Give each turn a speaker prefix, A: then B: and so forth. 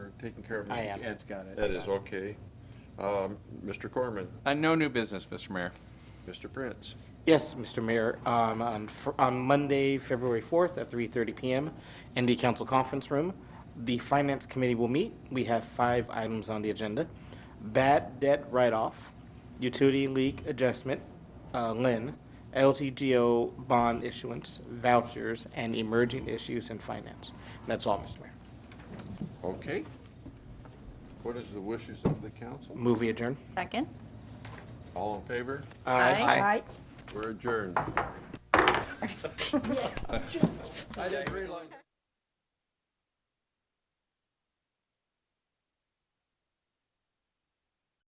A: taking care of it.
B: I am.
A: Ed's got it.
C: That is okay. Um, Mr. Corman,
D: Uh, No new business, Mr. Mayor.
C: Mr. Prince,
B: Yes, Mr. Mayor, um, on fr- on Monday, February 4th at 3:30 PM in the council conference room, the Finance Committee will meet. We have five items on the agenda. Bad debt write-off, utility leak adjustment, uh, LIN, LTGO bond issuance, vouchers, and emerging issues in finance. That's all, Mr. Mayor.
C: okay. What is the wishes of the council?
B: Movie adjourned.
E: Second?
C: All in favor?
E: Aye.
C: We're adjourned. I didn't realize.